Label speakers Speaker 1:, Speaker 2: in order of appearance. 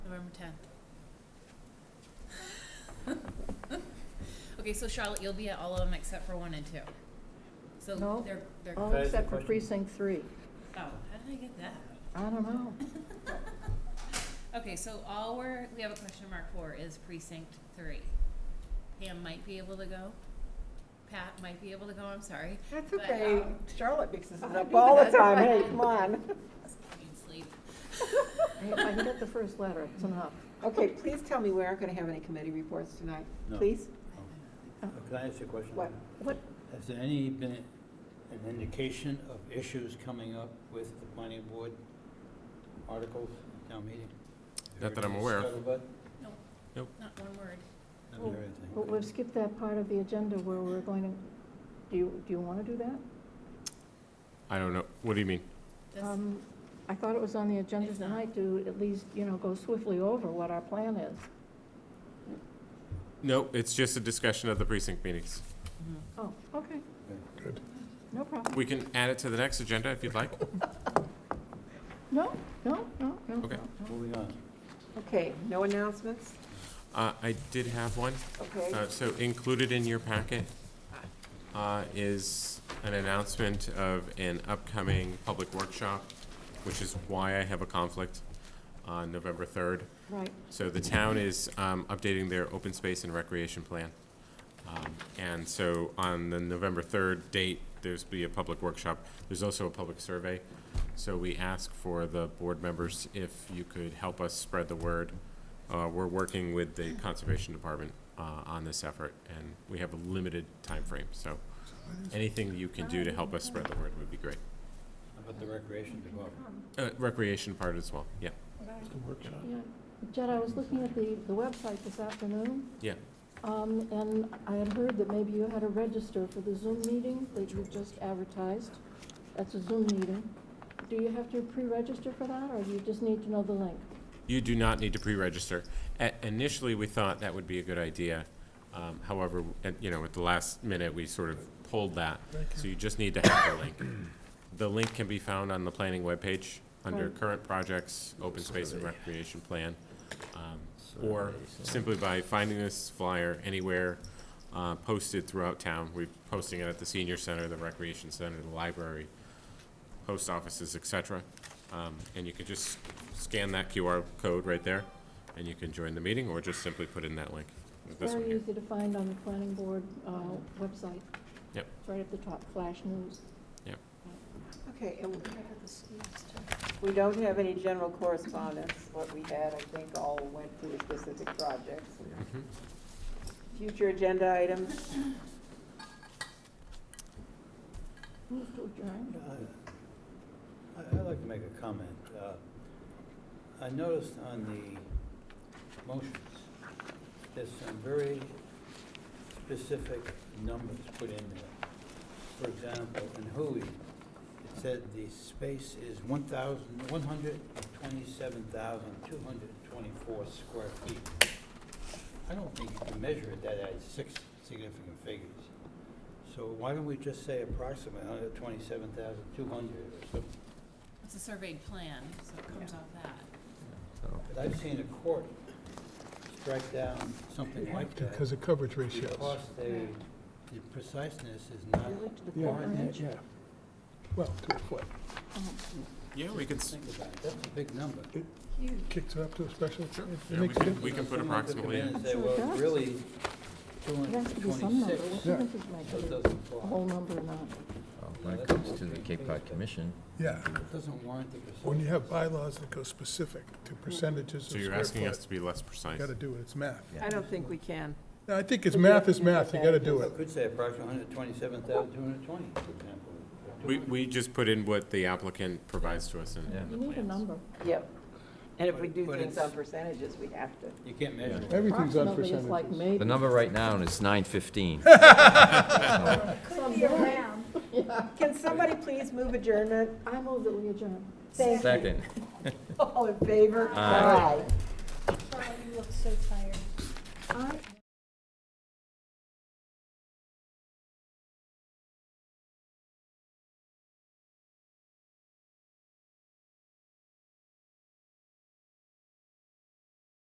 Speaker 1: tenth. Okay, so Charlotte, you'll be at all of them except for one and two. So
Speaker 2: No.
Speaker 1: they're, they're, oh,
Speaker 2: All
Speaker 3: Can I ask a
Speaker 2: except for
Speaker 3: question?
Speaker 2: precinct three.
Speaker 1: how did I get that?
Speaker 2: I don't know.
Speaker 1: Okay, so all we're, we have a question mark for is precinct three. Pam might be able to go. Pat might be able to go, I'm sorry.
Speaker 4: That's
Speaker 1: But,
Speaker 4: okay.
Speaker 1: um,
Speaker 4: Charlotte mixes it up all the time. Hey, come on.
Speaker 1: I need sleep.
Speaker 2: If I can get the first letter, it's enough.
Speaker 4: Okay, please tell me we aren't going to have any committee reports tonight.
Speaker 3: No.
Speaker 4: Please?
Speaker 3: Uh, Can I ask you a question?
Speaker 4: What?
Speaker 2: What,
Speaker 3: Has there any been an indication of issues coming up with the planning board articles at town meeting?
Speaker 5: Not that I'm aware of.
Speaker 3: Scuttlebutt?
Speaker 1: Nope.
Speaker 5: Nope.
Speaker 1: Not one word.
Speaker 3: Haven't heard anything.
Speaker 2: well, we've skipped that part of the agenda where we're going to, do you, do you want to do that?
Speaker 5: I don't know. What do you mean?
Speaker 1: This-
Speaker 2: Um, I thought it was on the agenda
Speaker 1: It's not.
Speaker 2: tonight to at least, you know, go swiftly over what our plan is.
Speaker 5: No, it's just a discussion of the precinct meetings.
Speaker 1: Mm-hmm.
Speaker 2: Oh, okay,
Speaker 3: Okay.
Speaker 2: no problem.
Speaker 5: We can add it to the next agenda if you'd like.
Speaker 2: No, no, no, no, no.
Speaker 5: Okay.
Speaker 2: no.
Speaker 3: Moving on.
Speaker 4: Okay, no announcements?
Speaker 5: Uh, I did have one.
Speaker 4: Okay.
Speaker 5: Uh, So included in your packet uh, is an announcement of an upcoming public workshop, which is why I have a conflict on November 3rd.
Speaker 2: Right,
Speaker 5: So the town is um, updating their open space and recreation plan. Um, And so on the November 3rd date, there's be a public workshop. There's also a public survey. So we ask for the board members if you could help us spread the word. Uh, We're working with the Conservation Department uh, on this effort, and we have a limited time frame. So anything you can do to help us spread the word would be great.
Speaker 3: How about the recreation department?
Speaker 5: Uh, Recreation part as well, yeah.
Speaker 2: yeah. Jed, I was looking at the, the website this afternoon.
Speaker 5: Yeah.
Speaker 2: Um, and I had heard that maybe you had to register for the Zoom meeting that you just advertised. That's a Zoom meeting. Do you have to pre-register for that, or do you just need to know the link?
Speaker 5: You do not need to pre-register. A- Initially, we thought that would be a good idea. Um, However, at- you know, at the last minute, we sort of pulled that. So you just need to have the link. The link can be found on the planning webpage under
Speaker 2: Right.
Speaker 5: current projects, open space and recreation plan. um, Or simply by finding this flyer anywhere uh, posted throughout town. We're posting it at the senior center, the recreation center, the library, post offices, et cetera. Um, And you can just scan that QR code right there, and you can join the meeting, or just simply put in that link. This one
Speaker 2: Very
Speaker 5: here.
Speaker 2: easy to find on the planning board, uh, website.
Speaker 5: Yep.
Speaker 2: It's Right at the top, flash news.
Speaker 4: Okay, and we don't have any general correspondence. What we had, I think, all went to the specific projects.
Speaker 5: Mhm.
Speaker 4: Future agenda items?
Speaker 2: Move to adjourn.
Speaker 3: Yeah, I- I- I'd like to make a comment. Uh, I noticed on the motions, there's some very specific numbers put in there. For example, in Hui, it said the space is 1,000 127,224 square feet. I don't think you can measure it that at six significant figures. So why don't we just say approximately 127,200 or something?
Speaker 1: It's a surveyed plan, so it comes off that.
Speaker 3: But I've seen a court strike down something like that.
Speaker 6: Because of coverage
Speaker 3: Because
Speaker 6: ratios.
Speaker 3: they, the preciseness is not
Speaker 2: You went to the
Speaker 6: Yeah,
Speaker 2: corner.
Speaker 3: warranted.
Speaker 6: Well, to a foot.
Speaker 5: Yeah, we can, s-
Speaker 3: Think about it, that's a big number.
Speaker 6: Kicks it up to a special.
Speaker 5: Sure.
Speaker 6: it
Speaker 5: Yeah, we
Speaker 6: makes a
Speaker 5: can-
Speaker 6: difference.
Speaker 5: we can put
Speaker 3: Someone could come
Speaker 5: approximately
Speaker 3: in
Speaker 5: in.
Speaker 3: and say,
Speaker 2: Sure it
Speaker 3: well,
Speaker 2: does.
Speaker 3: it's really
Speaker 2: It has to be some number.
Speaker 3: 226.
Speaker 2: What
Speaker 6: Yeah.
Speaker 2: difference does
Speaker 3: So
Speaker 2: it
Speaker 3: it
Speaker 2: make,
Speaker 3: doesn't
Speaker 2: a whole
Speaker 3: apply.
Speaker 2: number or not?
Speaker 7: Well, When it comes to the Cape Cod Commission,
Speaker 6: Yeah,
Speaker 2: Oh.
Speaker 3: It doesn't warrant the preciseness.
Speaker 6: when you have bylaws that go specific to percentages of
Speaker 5: so you're
Speaker 6: square
Speaker 5: asking us
Speaker 6: foot,
Speaker 5: to be less
Speaker 6: you
Speaker 5: precise.
Speaker 6: gotta do it, it's math.
Speaker 7: Yeah.
Speaker 4: I don't think we can.
Speaker 6: No, I think it's math is math, you gotta do
Speaker 3: I
Speaker 6: it.
Speaker 3: could say approximately 127,220, for example. or
Speaker 5: We,
Speaker 3: 200.
Speaker 5: we just put in what the applicant provides to us in in
Speaker 7: Yeah.
Speaker 5: the
Speaker 2: You
Speaker 5: plans.
Speaker 2: need a number.
Speaker 4: Yep. And if we
Speaker 3: But-
Speaker 4: do
Speaker 3: but
Speaker 4: things
Speaker 3: it's-
Speaker 4: on percentages, we have to.
Speaker 3: You can't measure it.
Speaker 6: Everything's on
Speaker 2: Approximately, it's like
Speaker 6: percentages.
Speaker 2: maybe.
Speaker 7: the number right now is nine fifteen.
Speaker 2: Some
Speaker 4: Can somebody please move adjournment?
Speaker 2: I move that we adjourn.
Speaker 4: Thank you.
Speaker 7: Second.
Speaker 4: All in favor?
Speaker 7: Aye.
Speaker 4: Aye.